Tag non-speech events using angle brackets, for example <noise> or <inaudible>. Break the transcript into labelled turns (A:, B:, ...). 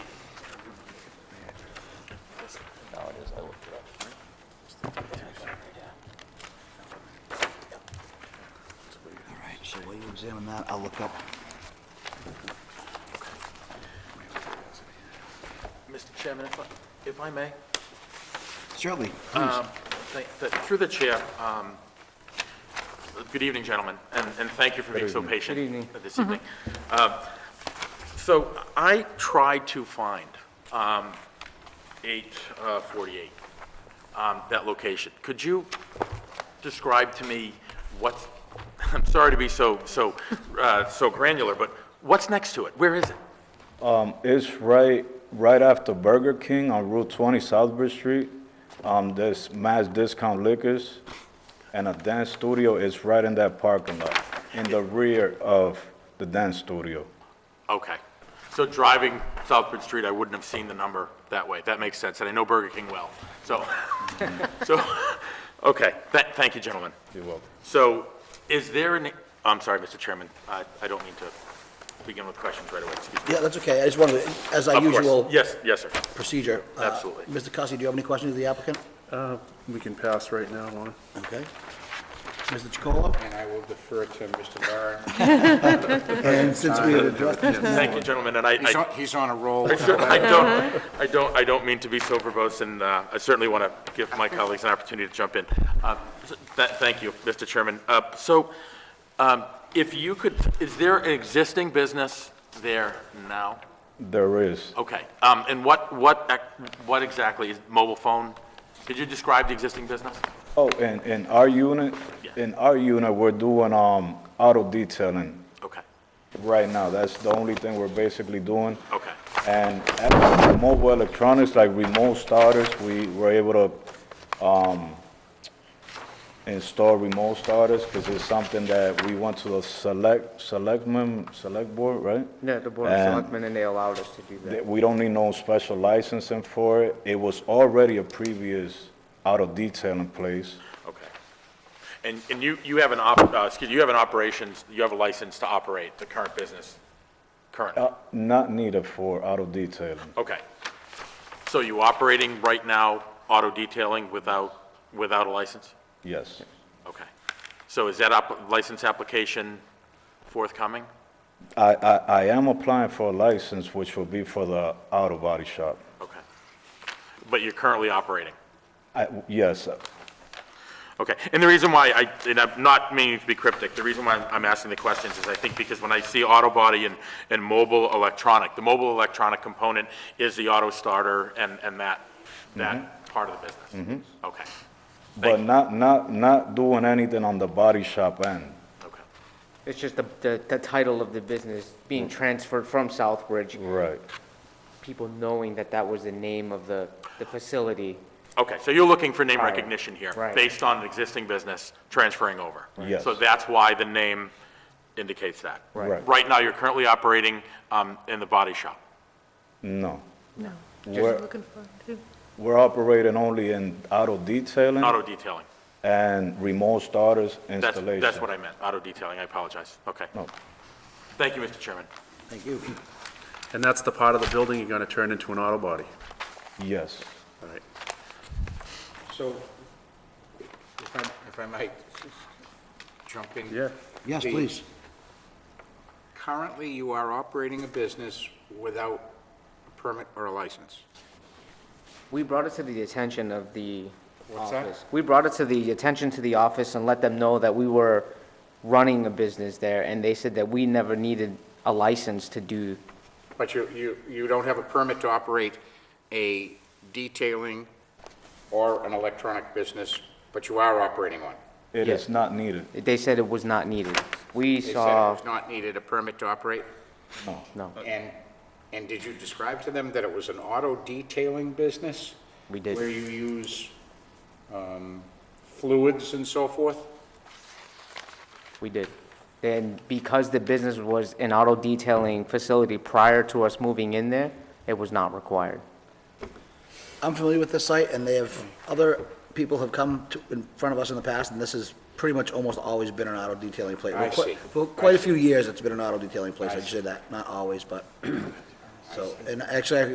A: examine that, I'll look up.
B: Mr. Chairman, if I- if I may,
A: Certainly,
B: um, th- th- through the chair, um, good evening, gentlemen, and and thank you for being so patient this evening. Um, So I tried to find um, 848, um, that location. Could you describe to me what's, <laughs> I'm sorry to be so, so, uh, so granular, but what's next to it? Where is it?
C: It's right, right after Burger King on Route 20, Southbridge Street. Um, there's Mass Discount Liquors and a dance studio is right in that parking lot, in the rear of the dance studio.
B: Okay. So driving Southbridge Street, I wouldn't have seen the number that way. That makes sense, and I know Burger King well.
C: <laughs>
B: So, so, okay, Tha- thank you, gentlemen.
C: You're welcome.
B: So is there an, I'm sorry, Mr. Chairman, I I don't mean to begin with questions right away, excuse me.
A: yeah, that's okay, I just wanted, as our
B: Of course.
A: usual
B: Yes, yes, sir.
A: procedure. uh,
B: Absolutely.
A: Mr. Cussie, do you have any questions of the applicant?
D: Uh, We can pass right now on it.
A: Okay. Mr. Chacolo?
E: And I will defer to Mr. Barron.
A: And since we have addressed
B: Thank you, gentlemen, and I,
E: He's
B: I
E: on- He's on a roll.
B: I cer- I don't, I don't, I don't mean to be so verbose, and uh, I certainly want to give my colleagues an opportunity to jump in. Uh, th- th- Thank you, Mr. Chairman. Uh, So um, if you could, is there an existing business there now?
C: There is.
B: Okay, Um, and what, what, ac- what exactly is mobile phone? Could you describe the existing business?
C: Oh, and in our unit,
B: Yeah.
C: in our unit, we're doing, um, auto detailing
B: Okay,
C: right now. That's the only thing we're basically doing.
B: okay,
C: And after mobile electronics, like remote starters, we were able to um, install remote starters because it's something that we went to the select, selectmen, select board, right?
F: Yeah, the Board of
C: And-
F: Selectmen, and they allowed us to do
C: That
F: that.
C: We don't need no special licensing for it. It was already a previous auto detailing place.
B: okay. And, and you, you have an, op- uh, excuse, you have an operations, you have a license to operate the current business currently?
C: Uh, Not needed for auto detailing.
B: Okay. So you operating right now auto detailing without, without a license?
C: Yes,
B: Okay. So is that app- license application forthcoming?
C: I, I, I am applying for a license, which will be for the auto body shop.
B: Okay. But you're currently operating?
C: I, yes,
B: Okay, and the reason why I, and I'm not meaning to be cryptic, the reason why I'm- I'm asking the questions is I think because when I see auto body and, and mobile electronic, the mobile electronic component is the auto starter and, and that, that
C: Mm-hmm.
B: part of the business. Okay,
C: But not, not, not doing anything on the body shop end.
B: okay.
F: It's just the, the, the title of the business being transferred from Southbridge,
C: Right.
F: people knowing that that was the name of the, the facility.
B: Okay, so you're looking for name
F: Right.
B: recognition here?
F: Right.
B: Based on an existing business transferring over?
C: Yes.
B: So that's why the name indicates that?
C: Right.
B: Right now, you're currently operating um, in the body shop?
C: No.
G: No.
C: We're,
G: Looking for, too.
C: we're operating only in auto detailing
B: Auto detailing?
C: and remote starters
B: That's,
C: installation. Oh,
B: that's what I meant, auto detailing, I apologize. Okay.
C: No.
B: Thank you, Mr. Chairman.
A: Thank you.
D: And that's the part of the building you're going to turn into an auto body.
C: Yes.
D: All right.
E: So, if I, if I might jump in.
D: Yeah.
A: Yes,
E: The-
A: please.
E: Currently, you are operating a business without a permit or a license.
F: We brought it to the attention of the
E: What's that?
F: office. We brought it to the attention to the office and let them know that we were running a business there, and they said that we never needed a license to do,
E: But you, you, you don't have a permit to operate a detailing or an electronic business, but you are operating one.
C: It is not needed.
F: they said it was not needed. We
E: They said it
F: saw,
E: was not needed a permit to operate?
F: no,
E: And, and did you describe to them that it was an auto detailing business?
F: we did.
E: Where you use um, fluids and so forth?
F: We did. And because the business was an auto detailing facility prior to us moving in there, it was not required.
A: I'm familiar with this site, and they have, other people have come to, in front of us in the past, and this has pretty much almost always been an auto detailing place.
E: I
A: For
E: see.
A: qui- For quite a few years, it's been an auto detailing place, I should say that, not always, but, <clears throat> so, and actually, I